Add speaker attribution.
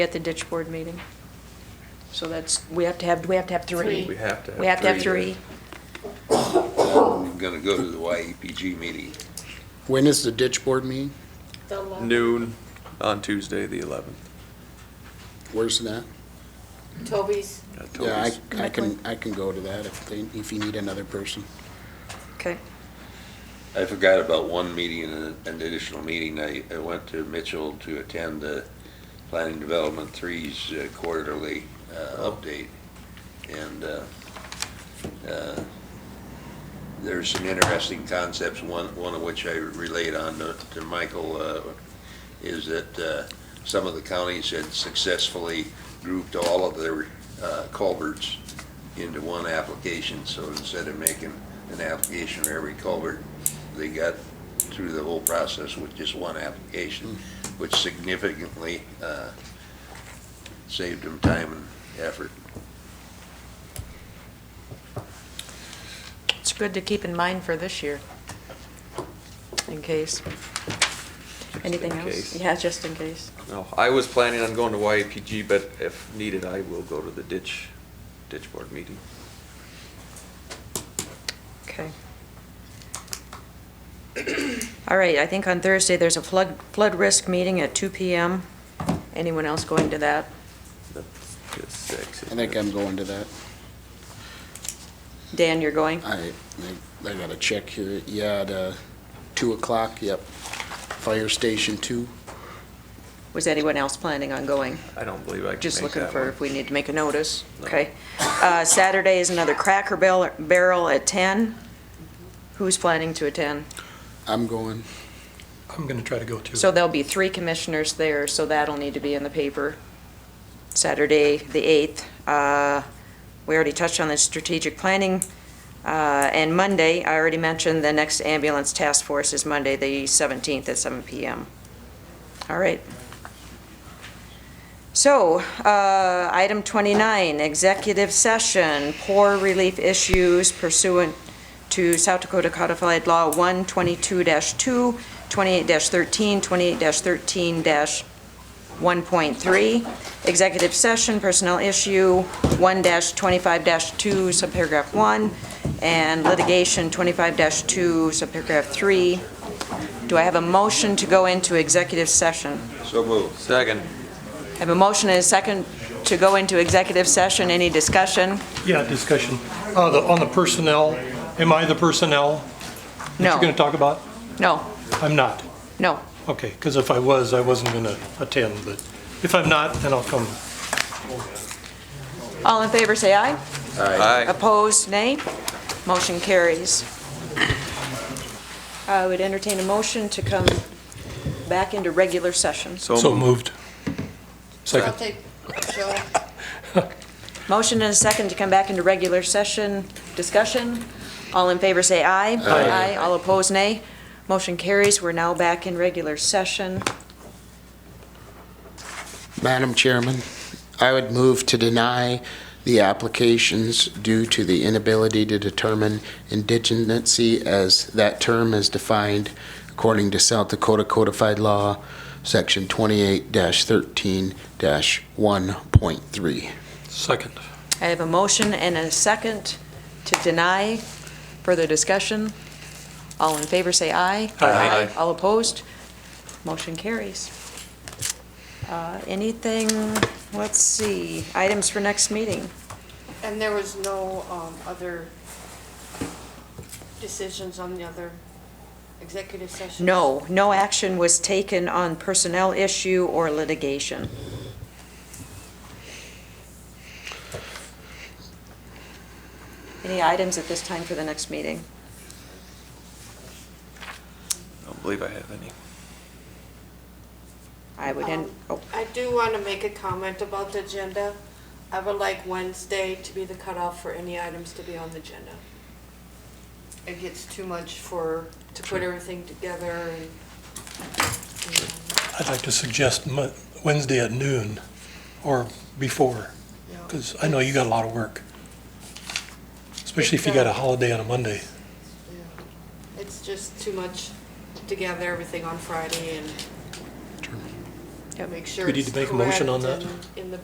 Speaker 1: at the ditch board meeting. So that's, we have to have, we have to have three.
Speaker 2: We have to have
Speaker 1: We have to have
Speaker 2: three.
Speaker 1: three.
Speaker 3: I'm gonna go to the YAPG meeting.
Speaker 4: When is the ditch board meeting?
Speaker 2: Noon on Tuesday, the 11th.
Speaker 4: Where's that?
Speaker 5: Toby's.
Speaker 2: Uh,
Speaker 4: Yeah,
Speaker 2: Toby's-
Speaker 4: I, I can, I can go to that if they, if you need another person.
Speaker 1: Okay.
Speaker 3: I forgot about one meeting, an an additional meeting. I, I went to Mitchell to attend the Planning Development Three's uh, quarterly uh, update. And uh, uh, there's some interesting concepts, one, one of which I relayed on to to Michael, uh, is that uh, some of the counties had successfully grouped all of their uh, culverts into one application. So instead of making an application for every culvert, they got through the whole process with just one application, which significantly uh, saved them time and effort.
Speaker 1: It's good to keep in mind for this year, in case. Anything
Speaker 2: in
Speaker 1: else?
Speaker 2: case.
Speaker 1: Yeah, just in case.
Speaker 2: No, I was planning on going to YAPG, but if needed, I will go to the ditch, ditch board meeting.
Speaker 1: Okay. All right, I think on Thursday, there's a flood, flood risk meeting at 2 PM. Anyone else going to that?
Speaker 2: That's at six,
Speaker 4: I
Speaker 2: isn't
Speaker 4: think
Speaker 2: it?
Speaker 4: I'm going to that.
Speaker 1: Dan, you're going?
Speaker 4: I, I- I gotta check here. Yeah, at, uh, two o'clock, yep. Fire Station Two.
Speaker 1: Was anyone else planning on going?
Speaker 2: I don't believe I can
Speaker 1: Just
Speaker 2: make
Speaker 1: looking
Speaker 2: that
Speaker 1: for
Speaker 2: one.
Speaker 1: if we need to make a notice,
Speaker 2: No.
Speaker 1: okay? Uh, Saturday is another Cracker Barrel Barrel at 10. Who's planning to attend?
Speaker 4: I'm going.
Speaker 6: I'm going to try to go too.
Speaker 1: So there'll be three commissioners there, so that'll need to be in the paper. Saturday, the 8th. Uh, We already touched on the strategic planning. Uh, And Monday, I already mentioned, the next ambulance task force is Monday, the 17th at 7 PM. All right. So, uh, item 29, executive session, poor relief issues pursuant to South Dakota Codified Law 122-2, 28-13, 28-13-1.3, executive session, personnel issue 1-25-2, subparagraph 1, and litigation 25-2, subparagraph 3. Do I have a motion to go into executive session?
Speaker 3: So moved.
Speaker 2: Second.
Speaker 1: I have a motion and a second to go into executive session. Any discussion?
Speaker 6: Yeah, discussion. Uh, the- On the personnel, am I the personnel that you're going
Speaker 1: No,
Speaker 6: to talk about?
Speaker 1: no,
Speaker 6: I'm not.
Speaker 1: no.
Speaker 6: Okay, because if I was, I wasn't going to attend, but if I'm not, then I'll come.
Speaker 1: All in favor, say aye.
Speaker 2: Aye.
Speaker 1: Opposed, nay. Motion carries. I would entertain a motion to come back into regular session.
Speaker 6: So moved.
Speaker 5: I'll
Speaker 6: Second.
Speaker 5: take Joe.
Speaker 1: Motion and a second to come back into regular session. Discussion. All in favor, say aye. Aye. All opposed, nay. Motion carries. We're now back in regular session.
Speaker 4: Madam Chairman, I would move to deny the applications due to the inability to determine indigency as that term is defined according to South Dakota Codified Law, Section 28-13-1.3.
Speaker 6: Second.
Speaker 1: I have a motion and a second to deny. Further discussion? All in favor, say aye.
Speaker 6: Aye.
Speaker 1: All opposed? Motion carries. Uh, Anything, let's see, items for next meeting?
Speaker 5: And there was no um, other decisions on the other executive sessions?
Speaker 1: No, no action was taken on personnel issue or litigation. Any items at this time for the next meeting?
Speaker 2: I don't believe I have any.
Speaker 1: I would, en- oh,
Speaker 5: Um, I do want to make a comment about the agenda. I would like Wednesday to be the cutoff for any items to be on the agenda. It gets too much for, to put everything together and,
Speaker 6: I'd like to suggest Mo- Wednesday at noon or before,
Speaker 5: you know.
Speaker 6: because I know you got a lot of work. Especially if you got a holiday on a Monday.
Speaker 5: It's just too much to gather everything on Friday and
Speaker 1: Yep.
Speaker 5: make sure
Speaker 6: We need
Speaker 5: it's
Speaker 6: to make a motion
Speaker 5: correct
Speaker 6: on that?
Speaker 5: and in the